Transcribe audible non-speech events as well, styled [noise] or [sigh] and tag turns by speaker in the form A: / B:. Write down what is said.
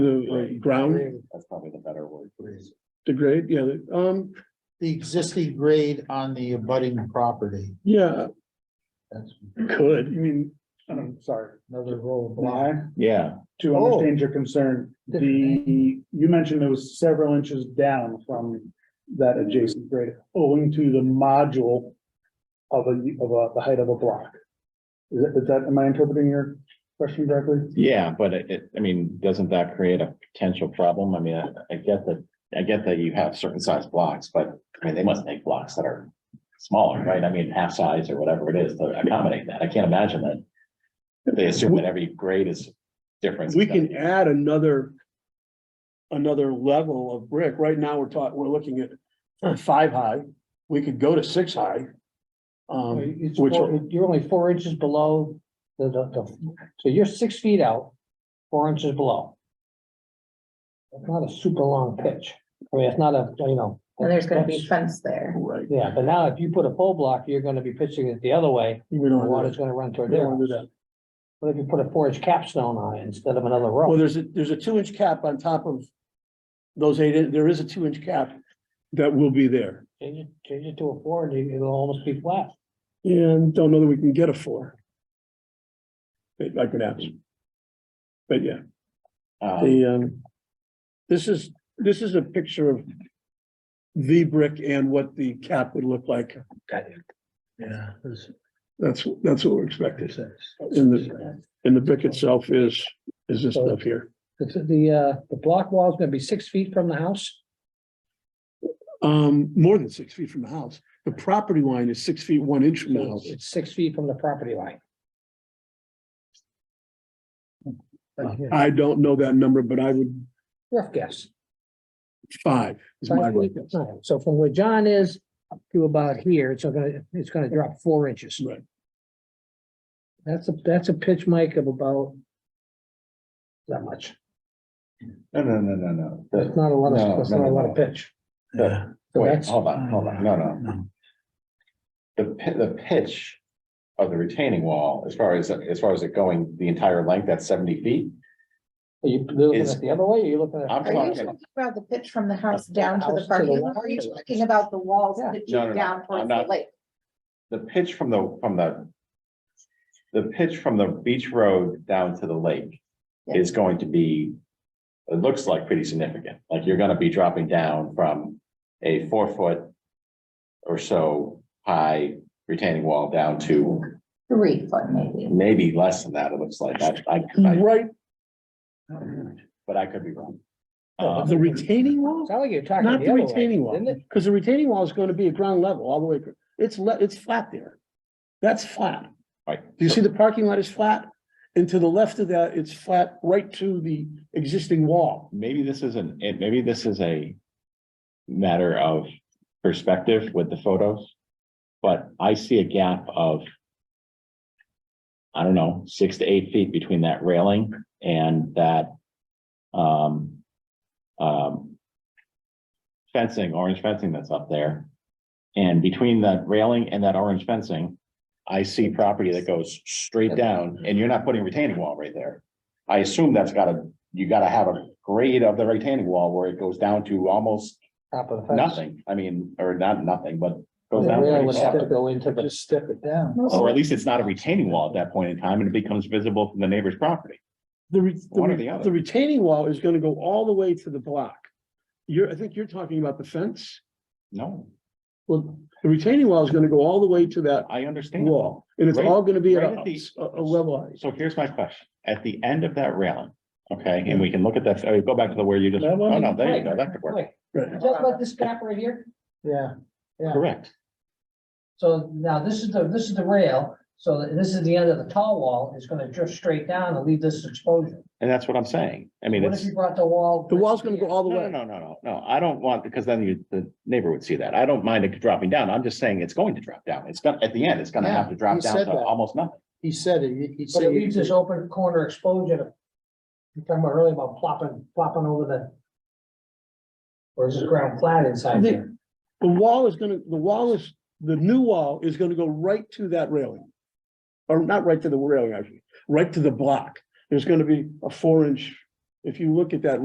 A: the uh, ground,
B: That's probably the better word.
A: the grade, yeah, the- um,
C: The existing grade on the abutting property.
A: yeah,
C: That's
A: could.
D: You mean, I'm sorry,
C: another row of block.
D: Bly,
B: Yeah,
D: to
C: Oh.
D: understand your concern, the,
A: [laughs]
D: you mentioned it was several inches down from that adjacent grade owing to the module of a, of a, the height of a block. Is that- is that, am I interpreting your question correctly?
B: yeah, but it, it- I mean, doesn't that create a potential problem? I mean, I, I get that, I get that you have certain size blocks, but I mean, they must make blocks that are smaller, right? I mean, half size or whatever it is to accommodate that. I can't imagine that. They assume that every grade is different.
A: We can add another. Another level of brick. Right now, we're taught, we're looking at five high. We could go to six high. Um,
C: It's
A: Which-
C: four- You're only four inches below the, the, the- so you're six feet out, four inches below. It's not a super long pitch. I mean, it's not a, you know.
E: And there's gonna be
C: that's-
E: fence there.
A: right.
C: Yeah, but now if you put a pole block, you're gonna be pitching it the other way,
A: We
C: the
A: don't want
C: water's
A: to,
C: gonna run
A: we
C: toward
A: don't
C: there.
A: want to do that.
C: But if you put a four inch capstone on it instead of another
A: Well,
C: row,
A: there's a, there's a two inch cap on top of. Those eight, in- there is a two inch cap. That will be there.
C: change it, change it to a four and it- it'll almost be flat.
A: And don't know that we can get a four. It, I could ask. But yeah.
B: Um,
A: The, um, this is, this is a picture of the brick and what the cap would look like.
F: Yeah, that's
A: That's, that's what we're expecting.
F: makes sense.
A: And the, and the brick itself is, is this stuff here.
C: It's the, uh, the block wall is gonna be six feet from the house?
A: Um, more than six feet from the house. The property line is six feet, one inch from the house.
C: It's six feet from the property line. Hmm.
A: I don't know that number, but I would,
C: Rough guess.
A: five is my
C: Five
A: rough
C: feet.
A: guess.
C: Alright, So from where John is to about here, it's gonna, it's gonna drop four inches.
A: Right.
C: That's a, that's a pitch, Mike, of about that much.
B: No, no, no, no, no.
C: That's not a lot
B: No,
C: of, that's
B: no,
C: not a
B: no,
C: lot
B: no.
C: of pitch.
F: Yeah.
B: The- Wait,
C: That's-
B: hold on, hold on. No, no. The pi- the pitch of the retaining wall, as far as, as far as it going the entire length, that's seventy feet?
C: Are you looking
B: Is-
C: at the other way? or You're looking at?
B: I'm
E: Are you
B: talking,
E: talking about the pitch from the house down to
C: House
E: the
C: to
E: parking
C: the
E: lot?
C: wall.
E: Are you talking about the walls
C: Yeah.
E: pitching
B: No, no, no,
E: down towards
B: I'm
E: the
B: not-
E: lake?
B: the pitch from the, from the. The pitch from the beach road down to the lake is going to be. It looks like pretty significant, like you're gonna be dropping down from a four foot. Or so high retaining wall down to
E: Three foot maybe.
B: maybe less than that, it looks like, I, I, I-
A: Right,
B: but I could be wrong.
C: No,
A: the
B: Um,
A: retaining wall?
C: It's not like you're talking
A: Not
C: the
A: the
C: other way.
A: retaining wall,
C: isn't it?
A: because the retaining wall is gonna be at ground level all the way, acro- it's le- it's flat there. That's flat.
B: Right.
A: Do you see the parking lot is flat? And to the left of that, it's flat right to the existing wall.
B: maybe this isn't, it, maybe this is a matter of perspective with the photos. But I see a gap of I don't know, six to eight feet between that railing and that um um fencing, orange fencing that's up there. And between that railing and that orange fencing, I see property that goes straight down and you're not putting retaining wall right there. I assume that's gotta, you gotta have a grade of the retaining wall where it goes down to almost
C: Top of the fence.
B: nothing. I mean, or not nothing, but goes
C: The
B: down.
C: rail
B: pretty
C: would
B: far.
C: have to go into the. Just step it down.
B: Or at least it's not a retaining wall at that point in time and it becomes visible from the neighbor's property.
A: The re- the
B: One or
A: re-
B: the other.
A: the retaining wall is gonna go all the way to the block. You're, I think you're talking about the fence.
B: No,
A: Well, the retaining wall is gonna go all the way to that
B: I understand.
A: wall, and it's
B: Right-
A: all gonna be at
B: right
A: a,
B: at the-
A: a a level. height.
B: So here's my question. At the end of that railing, okay, and we can look at that, oh, go back to the where you just,
A: That one?
B: oh, no, there you go, that could work.
A: Right.
C: Is that like this gap right here? Yeah. Yeah.
B: Correct.
C: So now this is the, this is the rail, so this is the end of the tall wall, it's gonna drift straight down and leave this exposure.
B: And that's what I'm saying. I mean,
C: What
B: it's,
C: if you brought the wall?
A: The wall's gonna go all the
B: no, no,
A: way.
B: no, no, no, no, I don't want, because then you, the neighbor would see that. I don't mind it dropping down. I'm just saying it's going to drop down. It's gonna, at the end, it's gonna have to drop
C: Yeah, he
B: down
C: said
B: to
C: that.
B: almost nothing.
F: He said it, he- he
C: But it
F: said.
C: leaves this open corner exposure. You're talking about earlier about plopping, plopping over the. Or is this ground flat inside
A: The-
C: here?
A: The wall is gonna, the wall is, the new wall is gonna go right to that railing. Or not right to the railing, actually, right to the block. There's gonna be a four inch if you look at that